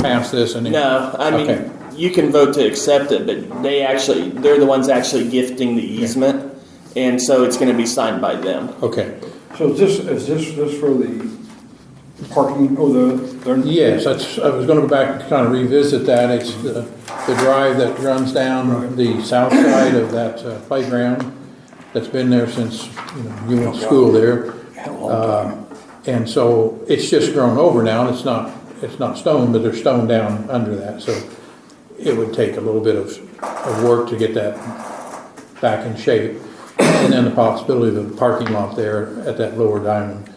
pass this and then? No, I mean, Okay. you can vote to accept it, but they actually, they're the ones actually gifting the easement, and so it's going to be signed by them. Okay, So is this, is this, this for the parking, or the? they're- yes, that's, I was gonna go back and kind of revisit that, it's the, the drive that runs down the south side of that uh, playground that's been there since, you know, you went to school there. Uh, And so it's just grown over now, and it's not, it's not stone, but there's stone down under that, so it would take a little bit of, of work to get that back in shape. And then the possibility of a parking lot there at that lower diamond.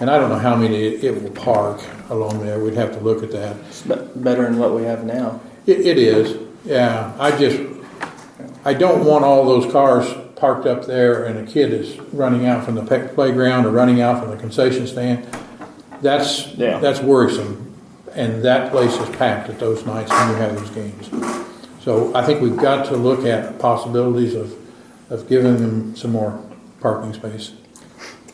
And I don't know how many it it will park along there, we'd have to look at that. It's be- better than what we have now. It, it is, yeah, I just, I don't want all those cars parked up there and a kid is running out from the pe- playground or running out from the concession stand. That's, Yeah. that's worrisome, and that place is packed at those nights when you have these games. So I think we've got to look at possibilities of, of giving them some more parking space.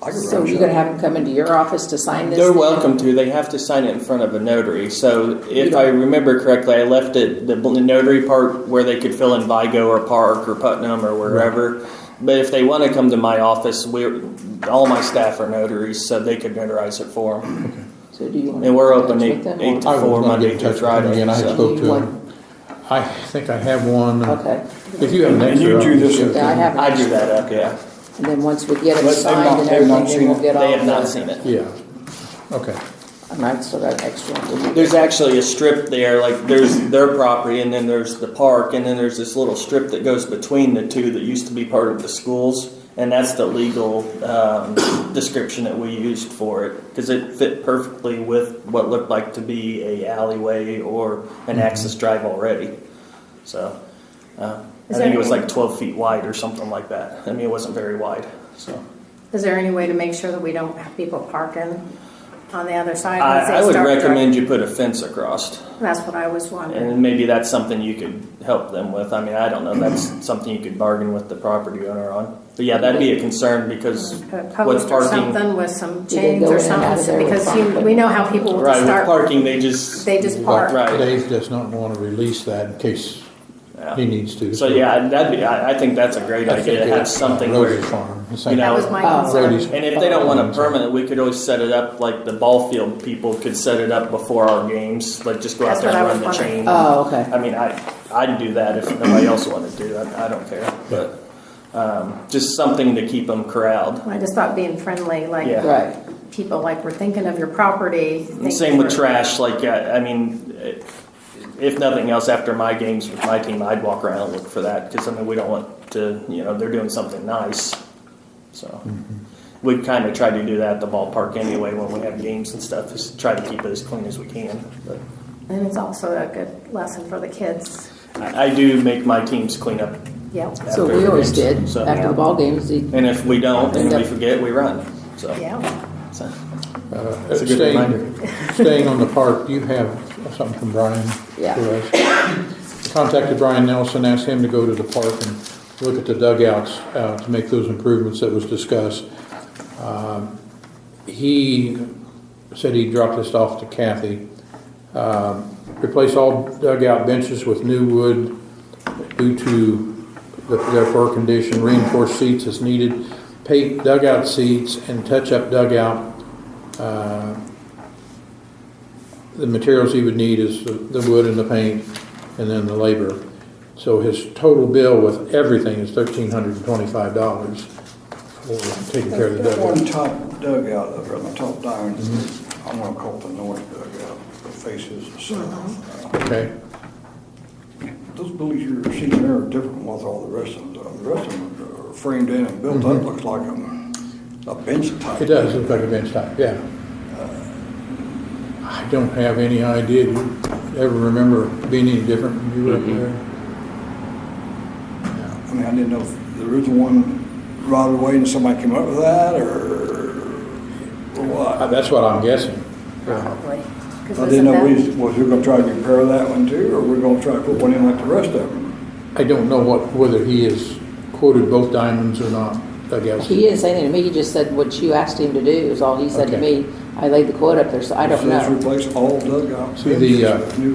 I could So run you're shot. gonna have them come into your office to sign this? They're thing? welcome to, they have to sign it in front of a notary, so if Yeah. I remember correctly, I left it, the bl- notary part where they could fill in Vigo or Park or Putnam or wherever. But if they want to come to my office, we're, all my staff are notaries, so they could notarize it for them. So do you want? And we're open to eight, with them, eight or- to I was gonna four, get Monday in through touch with them Friday. again. I so- spoke to One. him. I think I have one. Okay, If you have an And extra. you do this with- yeah, I have. I drew that up, yeah. And then once we get it But they've not- signed they've and not everything, seen then we'll it. get all. They have not the- seen it. Yeah, okay. I might still got an extra one. There's actually a strip there, like there's their property and then there's the park and then there's this little strip that goes between the two that used to be part of the schools. And that's the legal um, description that we used for it because it fit perfectly with what looked like to be a alleyway or an access drive already. So uh, I Is think there it was any- like 12 feet wide or something like that. I mean, it wasn't very wide, so. Is there any way to make sure that we don't have people parking on the other side? once they I, I would start driving? recommend you put a fence across, That's what I was wondering. and maybe that's something you could help them with. I mean, I don't know, that's something you could bargain with the property owner on. But yeah, that'd be a concern because Put a with post Uh, or parking, something with some can chains go in or and out of there something, with because you, fine. we know how people will right, just with start, parking, they just, they just Right. park. Dave does not want to release that in case he yeah. needs to. So yeah, that'd be, I, I think that's a great I think idea to it's have something where, Rosie's farm, the you same. know, That was my Oh. concern. Roadies. and if they don't want a permanent, we could always set it up, like the ball field people could set it up before our games, like just go out That's there and what I run the was chain. wondering. Oh, okay. I mean, I, I'd do that if nobody else wanted to, I, I don't care, but, um, just something to keep them corralled. I just thought being friendly, Yeah. like, Right, people, like, we're thinking of your property. And same with thinking- trash, like, I, I mean, eh, if nothing else, after my games with my team, I'd walk around and look for that, because I mean, we don't want to, you know, they're doing something nice, so. We kind of try to do that at the ballpark anyway, when we have games and stuff, is try to keep it as clean as we can, but. And it's also a good lesson for the kids. I, I do make my teams clean up, Yep, so After we the always games, did, so- after the ball games, the- and if we don't, and we forget, we run, so. yeah. so. Uh, It's a good staying- reminder. Staying on the park, you have something from Brian for Yeah. us. Contacted Brian Nelson, asked him to go to the park and look at the dugouts, uh, to make those improvements that was discussed. Um, He said he dropped this off to Kathy. Um, Replace all dugout benches with new wood due to the- their poor condition, reinforced seats as needed, paint dugout seats and touch-up dugout uh, the materials he would need is the, the wood and the paint, and then the labor. So his total bill with everything is thirteen hundred and twenty-five dollars for taking care of the That one dugout. top dugout up there, the top diamond, I'm gonna call it the north dugout, the faces south. Uh, Okay, Those buildings you're seeing there are different than what all the rest of them, are. the rest of them are framed in and built up, looks like a, a bench type. Mm-hmm. it does look like a bench top, yeah. I don't have any idea, do you ever remember being any different when you were up there? I mean, I didn't know if the original one rotted away and somebody came up with that, or or Uh, what. That's what I'm guessing. Probably. 'Cause I didn't isn't know, that- we- was we gonna try to repair that one too, or we're gonna try to put one in like the rest of them? I don't know what, whether he has quoted both diamonds or not, I guess. he didn't say anything to me, he just said what you asked him to do is all he said to Okay. me. I laid the quote up there, so I don't It says know. replace all dugouts. See, the, uh, with new